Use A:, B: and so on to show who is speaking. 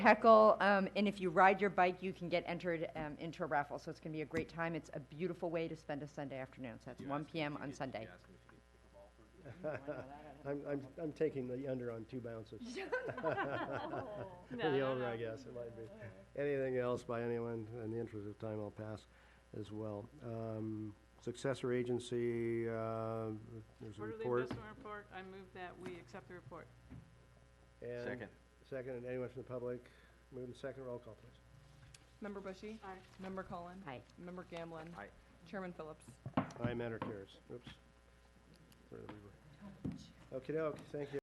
A: Heckle, um, and if you ride your bike, you can get entered um, into a raffle. So it's going to be a great time. It's a beautiful way to spend a Sunday afternoon. So that's 1 p.m. on Sunday.
B: I'm, I'm, I'm taking the under on two bounces. The over, I guess, it might be. Anything else by anyone, in the interest of time, I'll pass as well. Um, Successor agency, uh, there's a
C: Quarterly
B: report.
C: investment report, I move that we accept the report.
B: and- Second, and anyone from the public, move the second, roll call, please.
D: Member Bushy?
C: Aye.
D: Member Cullen?
A: Aye.
D: Member Gamblin?
E: Aye.
D: Chairman Phillips?
B: Aye, matter carries. Oops. Where did we- Okey-dokey, thank you.